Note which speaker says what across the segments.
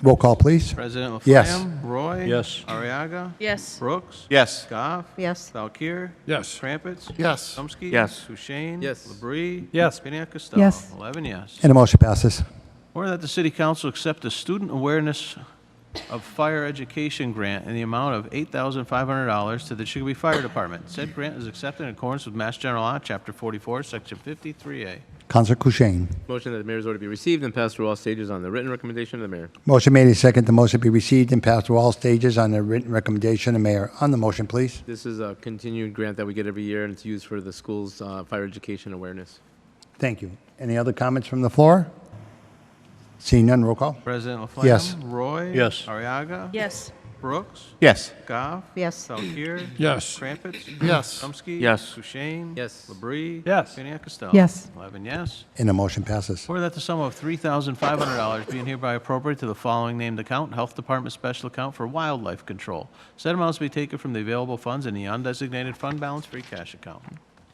Speaker 1: Roll call, please.
Speaker 2: President Laflamme?
Speaker 1: Yes.
Speaker 2: Roy?
Speaker 3: Yes.
Speaker 2: Ariaga?
Speaker 4: Yes.
Speaker 2: Brooks?
Speaker 5: Yes.
Speaker 2: Goff?
Speaker 4: Yes.
Speaker 2: Valkir?
Speaker 3: Yes.
Speaker 2: Krampus?
Speaker 5: Yes.
Speaker 2: Chomsky?
Speaker 5: Yes.
Speaker 2: Kushein?
Speaker 5: Yes.
Speaker 2: Labrie?
Speaker 3: Yes.
Speaker 2: Piniac Costello?
Speaker 6: Yes.
Speaker 2: Eleven yes.
Speaker 1: And the motion passes.
Speaker 2: Order that the City Council accept a student awareness of fire education grant in the amount of $8,500 to the Chicopee Fire Department. Said grant is accepted in accordance with Mass General Law, Chapter 44, Section 53A.
Speaker 1: Counselor Kushein.
Speaker 7: Motion that the mayor's order be received and passed through all stages on the written recommendation of the mayor.
Speaker 1: Motion made and second. The motion be received and passed through all stages on the written recommendation of mayor. On the motion, please.
Speaker 7: This is a continued grant that we get every year, and it's used for the school's uh, fire education awareness.
Speaker 1: Thank you. Any other comments from the floor? Seeing none, roll call.
Speaker 2: President Laflamme?
Speaker 1: Yes.
Speaker 2: Roy?
Speaker 3: Yes.
Speaker 2: Ariaga?
Speaker 4: Yes.
Speaker 2: Brooks?
Speaker 5: Yes.
Speaker 2: Goff?
Speaker 4: Yes.
Speaker 2: Valkir?
Speaker 3: Yes.
Speaker 2: Crumpets?
Speaker 5: Yes.
Speaker 2: Chomsky?
Speaker 5: Yes.
Speaker 2: Kushein?
Speaker 7: Yes.
Speaker 2: Labrie?
Speaker 3: Yes.
Speaker 2: Piniac Costello?
Speaker 6: Yes.
Speaker 2: Eleven yes.
Speaker 1: And the motion passes.
Speaker 2: Order that the sum of $3,500 being hereby appropriated to the following named account, Health Department Special Account for Wildlife Control. Said amounts be taken from the available funds in the undesignated fund balance free cash account.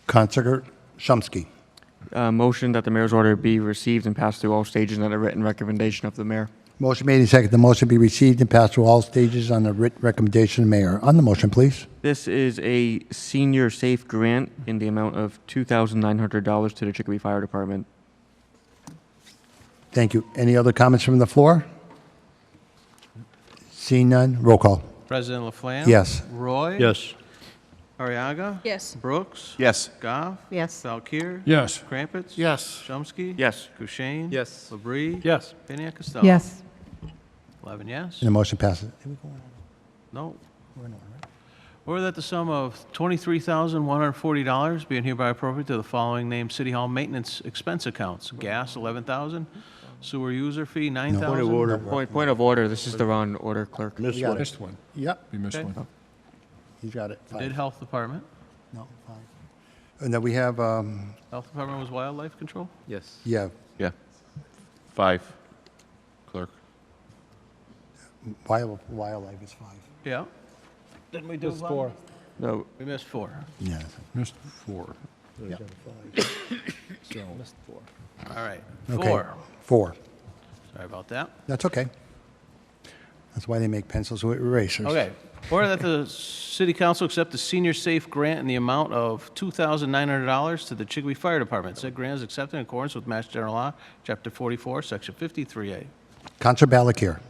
Speaker 1: Counselor Shumsky.
Speaker 8: Uh, Motion that the mayor's order be received and passed through all stages on a written recommendation of the mayor.
Speaker 1: Motion made and second. The motion be received and passed through all stages on the written recommendation of mayor. On the motion, please.
Speaker 8: This is a senior safe grant in the amount of $2,900 to the Chicopee Fire Department.
Speaker 1: Thank you. Any other comments from the floor? Seeing none, roll call.
Speaker 2: President Laflamme?
Speaker 1: Yes.
Speaker 2: Roy?
Speaker 3: Yes.
Speaker 2: Ariaga?
Speaker 4: Yes.
Speaker 2: Brooks?
Speaker 5: Yes.
Speaker 2: Goff?
Speaker 4: Yes.
Speaker 2: Valkir?
Speaker 3: Yes.
Speaker 2: Crumpets?
Speaker 5: Yes.
Speaker 2: Chomsky?
Speaker 8: Yes.
Speaker 2: Kushein?
Speaker 7: Yes.
Speaker 2: Labrie?
Speaker 3: Yes.
Speaker 2: Piniac Costello?
Speaker 6: Yes.
Speaker 2: 11 yes.
Speaker 1: And the motion passes.
Speaker 2: No. Or that the sum of $23,140 being hereby appropriated to the following named City Hall maintenance expense accounts. Gas, 11000 sewer user fee, 9000
Speaker 8: Point, point of order, this is the wrong order, clerk.
Speaker 3: Missed
Speaker 1: got
Speaker 3: one.
Speaker 1: it. Missed
Speaker 3: one.
Speaker 1: Yep,
Speaker 3: We missed
Speaker 2: Okay.
Speaker 3: one.
Speaker 1: he's got it.
Speaker 2: Did
Speaker 1: Five.
Speaker 2: Health Department.
Speaker 1: No, five. And then we have, um,
Speaker 2: Health Department was wildlife control?
Speaker 7: Yes.
Speaker 1: yeah,
Speaker 5: Yeah. Five. Clerk.
Speaker 1: wild- wildlife is five.
Speaker 2: Yeah. Didn't we do four?
Speaker 8: No,
Speaker 2: We missed four.
Speaker 1: Yeah.
Speaker 3: Missed four.
Speaker 2: All right.
Speaker 1: Okay.
Speaker 2: Four.
Speaker 1: Four.
Speaker 2: Sorry about that.
Speaker 1: That's okay. That's why they make pencils with erasers.
Speaker 2: Okay. Order that the city council accept the senior safe grant in the amount of $2,900 to the Chicopee Fire Department. Said grant is accepted in accordance with Mass General Law, Chapter 44, Section 53A.
Speaker 1: Counselor Balakir.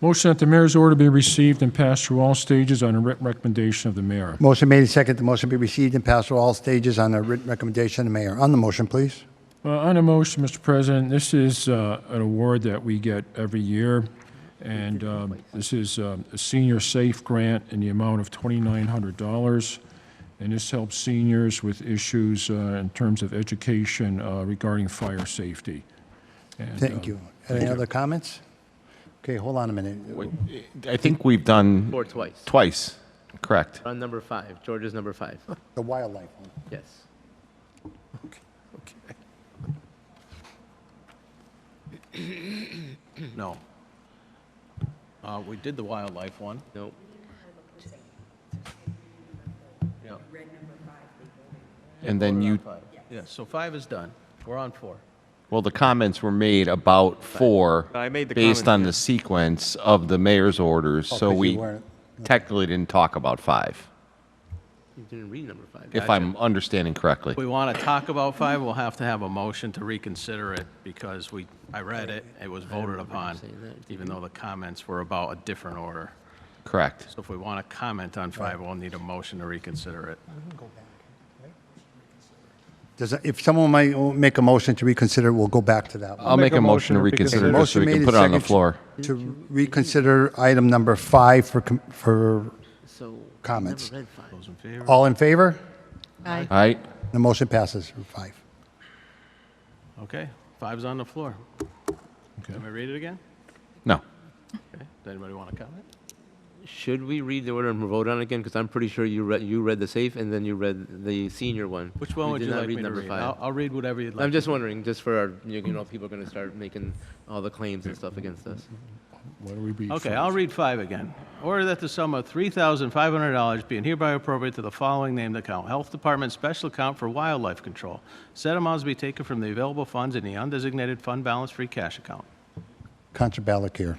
Speaker 3: Motion that the mayor's order be received and passed through all stages on a written recommendation of the mayor.
Speaker 1: Motion made and second. The motion be received and passed through all stages on a written recommendation of the mayor. On the motion, please.
Speaker 3: Uh, On a motion, Mr. President, this is uh, an award that we get every year, and um, this is um, a senior safe grant in the amount of $2,900, and this helps seniors with issues uh, in terms of education uh, regarding fire safety. And,
Speaker 1: Thank
Speaker 3: uh,
Speaker 1: you. Any other comments? Okay, hold on a minute.
Speaker 5: I think we've done
Speaker 7: Or twice.
Speaker 5: twice. Correct.
Speaker 7: On number five, George's number five.
Speaker 1: The wildlife one.
Speaker 7: Yes.
Speaker 2: No. Uh, We did the wildlife one.
Speaker 7: No.
Speaker 2: Yeah.
Speaker 5: And then you,
Speaker 2: Yeah, so five is done. We're on four.
Speaker 5: well, the comments were made about four.
Speaker 8: I made the
Speaker 5: Based
Speaker 8: comment,
Speaker 5: on
Speaker 8: yeah.
Speaker 5: the sequence of the mayor's orders, so
Speaker 1: 'cause you
Speaker 5: we
Speaker 1: weren't-
Speaker 5: technically didn't talk about five,
Speaker 7: You didn't read number five.
Speaker 5: if I'm understanding correctly.
Speaker 2: If we want to talk about five, we'll have to have a motion to reconsider it because we, I read it, it was voted upon, even though the comments were about a different order.
Speaker 5: Correct.
Speaker 2: So if we want to comment on five, we'll need a motion to reconsider it.
Speaker 1: Does, if someone might make a motion to reconsider, we'll go back to that one.
Speaker 5: I'll make a motion to reconsider this so
Speaker 1: Motion
Speaker 5: we
Speaker 1: made
Speaker 5: can
Speaker 1: and
Speaker 5: put it on the
Speaker 1: seconded
Speaker 5: floor.
Speaker 1: To reconsider item number five for, com- for,
Speaker 7: So.
Speaker 1: Comments.
Speaker 7: Never read five.
Speaker 2: Those in favor?
Speaker 1: all in favor?
Speaker 4: Aye.
Speaker 5: All right?
Speaker 1: The motion passes, five.
Speaker 2: Okay, five's on the floor.
Speaker 3: Okay.
Speaker 2: Can we read it again?
Speaker 5: No.
Speaker 2: Okay, does anybody want to comment?
Speaker 7: Should we read the order and vote on it again? Because I'm pretty sure you read, you read the safe and then you read the senior one.
Speaker 2: Which one
Speaker 7: We
Speaker 2: would
Speaker 7: did
Speaker 2: you
Speaker 7: not
Speaker 2: like me to
Speaker 7: number
Speaker 2: read?
Speaker 7: five.
Speaker 2: I'll, I'll read whatever you'd like.
Speaker 7: I'm just wondering, just for our, you know, people are going to start making all the claims and stuff against us.
Speaker 3: What do we be?
Speaker 2: Okay, I'll read five again. Order that the sum of $3,500 being hereby appropriated to the following named account, Health Department Special Account for Wildlife Control. Said amounts be taken from the available funds in the undesignated fund balance free cash account.
Speaker 1: Counselor Balakir.